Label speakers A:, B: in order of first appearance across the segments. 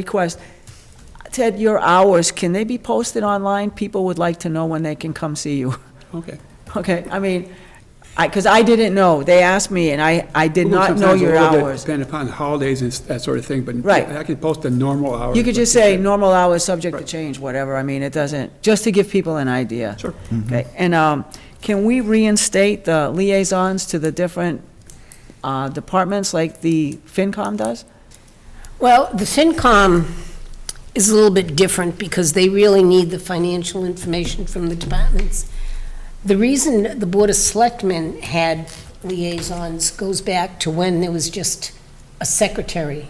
A: request. Ted, your hours, can they be posted online? People would like to know when they can come see you.
B: Okay.
A: Okay, I mean, I, because I didn't know. They asked me, and I, I did not know
B: Sometimes a
A: your
B: little bit
A: hours.
B: Depending upon the holidays and s- that sort of thing, but.
A: Right.
B: I could post the normal hours.
A: You could
B: but-
A: just say, normal hours, subject to
B: Right.
A: change, whatever. I mean, it doesn't, just to give people an idea.
B: Sure. Mm-hmm.
A: Okay, and, um, can we reinstate the liaisons to the different, uh, departments like the FinCom does?
C: Well, the FinCom is a little bit different because they really need the financial information from the departments. The reason the Board of Selectmen had liaisons goes back to when there was just a secretary.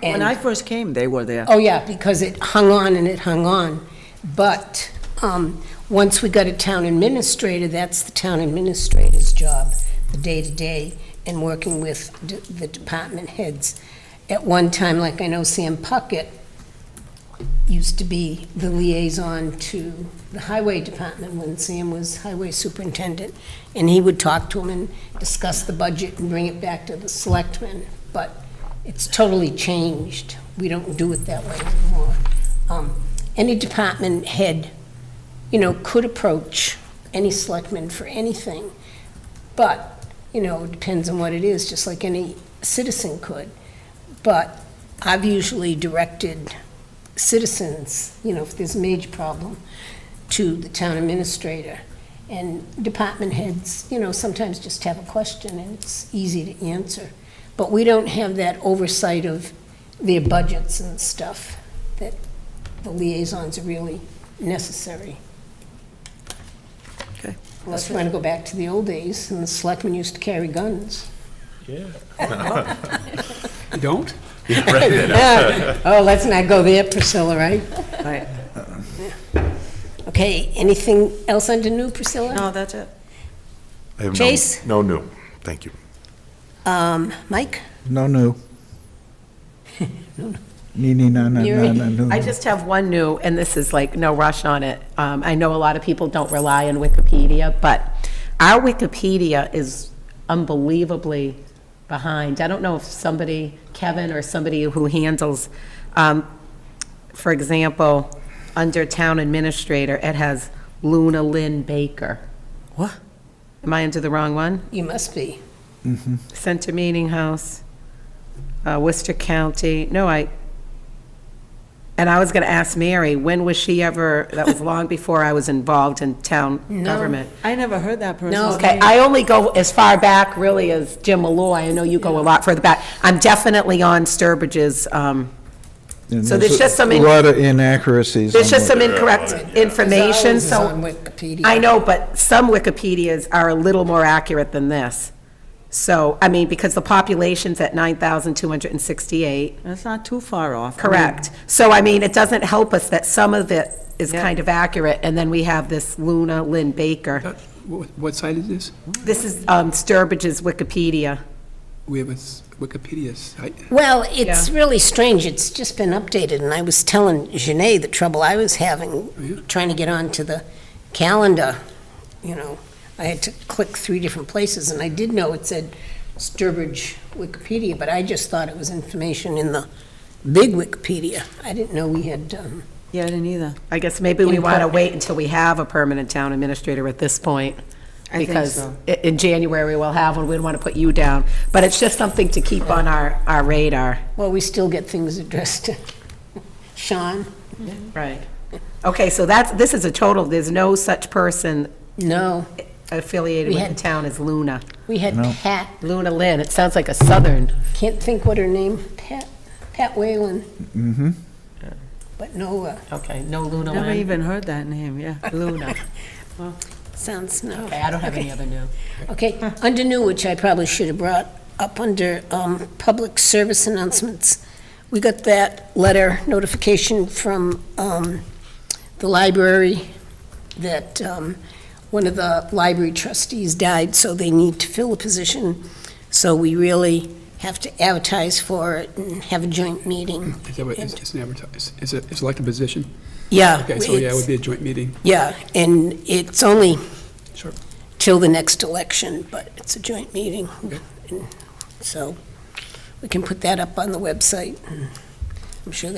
A: When
C: And-
A: I first came, they were there.
C: Oh, yeah, because it hung on and it hung on. But um, once we got a town administrator, that's the town administrator's job, the day-to-day, and working with d- the department heads. At one time, like I know Sam Puckett used to be the liaison to the highway department when Sam was highway superintendent, and he would talk to him and discuss the budget and bring it back to the selectmen. But it's totally changed we don't do it that way anymore. Um, Any department head, you know, could approach any selectman for anything, but, you know, it depends on what it is, just like any citizen could. But I've usually directed citizens, you know, if there's a major problem, to the town administrator. And department heads, you know, sometimes just have a question, and it's easy to answer. But we don't have that oversight of their budgets and stuff, that the liaisons are really necessary.
A: Okay.
C: Unless you want to go back to the old days, and the selectmen used to carry guns.
B: You don't? Uh,
C: Oh, let's not go there, Priscilla, right?
A: Right.
C: Okay, anything else under new, Priscilla?
A: No, that's it.
D: I have no-
C: Chase?
D: No new, thank you.
C: Um, Mike?
E: No, no. Nini, na, na, na, na, no.
F: I just have one new, and this is like, no rush on it. Um, I know a lot of people don't rely on Wikipedia, but our Wikipedia is unbelievably behind. I don't know if somebody, Kevin or somebody who handles, um, for example, under Town Administrator, it has Luna Lynn Baker.
A: What?
F: Am I into the wrong one?
C: You must be.
F: Center Meeting House, uh, Worcester County, no, I, and I was going to ask Mary, when was she ever, that was long before I was involved in town government.
A: I never heard that person's name.
F: No, okay, I only go as far back really as Jim Malloy, I know you go a lot further back. I'm definitely on Sturbridge's, um,
E: And
F: so there's
E: a-
F: just some
E: A
F: in-
E: lot of inaccuracies.
F: there's
E: on
F: just
E: the-
F: some incorrect information,
C: It's always on
F: so.
C: Wikipedia.
F: I know, but some Wikipedias are a little more accurate than this. So, I mean, because the population's at 9,268,
A: That's not too far off. I mean,
F: Correct. So, I mean, it doesn't help us that some of it is
A: Yeah.
F: kind of accurate, and then we have this Luna Lynn Baker.
B: That- What what site is this?
F: This is um, Sturbridge's Wikipedia.
B: We have a s- Wikipedia site.
C: Well, it's really strange. It's just been updated, and I was telling Janae the trouble I was
B: Yeah.
C: having trying to get onto the calendar. You know, I had to click three different places, and I did know it said Sturbridge Wikipedia, but I just thought it was information in the big Wikipedia. I didn't know we had, um,
A: Yeah, I didn't either.
F: I guess maybe we want to
C: Incorrect.
F: wait until we have a permanent town administrator at this point.
A: I think so.
F: Because i- in January, we'll have one, we don't want to put you down. But it's just something to keep on our, our radar.
C: well, we still get things addressed to Sean.
F: Right. Okay, so that's, this is a total, there's no such person
C: No,
F: affiliated
C: We
F: with the
C: had-
F: town as Luna.
C: we had
E: No.
C: Pat.
F: Luna Lynn, it sounds like a southern.
C: Can't think what her name, Pat, Pat Whalen. Mm-hmm. But no, uh,
F: Okay, no Luna
A: Never
F: Lynn.
A: even heard that name, yeah.
F: Luna.
C: sounds no.
F: Okay, I don't have any other new.
C: Okay, under new, which I probably should have brought up under um, public service announcements, we got that letter notification from um, the library that um, one of the library trustees died, so they need to fill a position. So we really have to advertise for it and have a joint meeting.
B: Is that what, it's it's an advertise, it's a, it's like a position?
C: Yeah.
B: Okay, so yeah, it
C: it's-
B: would be a joint meeting.
C: Yeah, and it's only
B: Sure.
C: till the next election, but it's a joint meeting.
B: Okay.
C: And So we can put that up on the website and I'm sure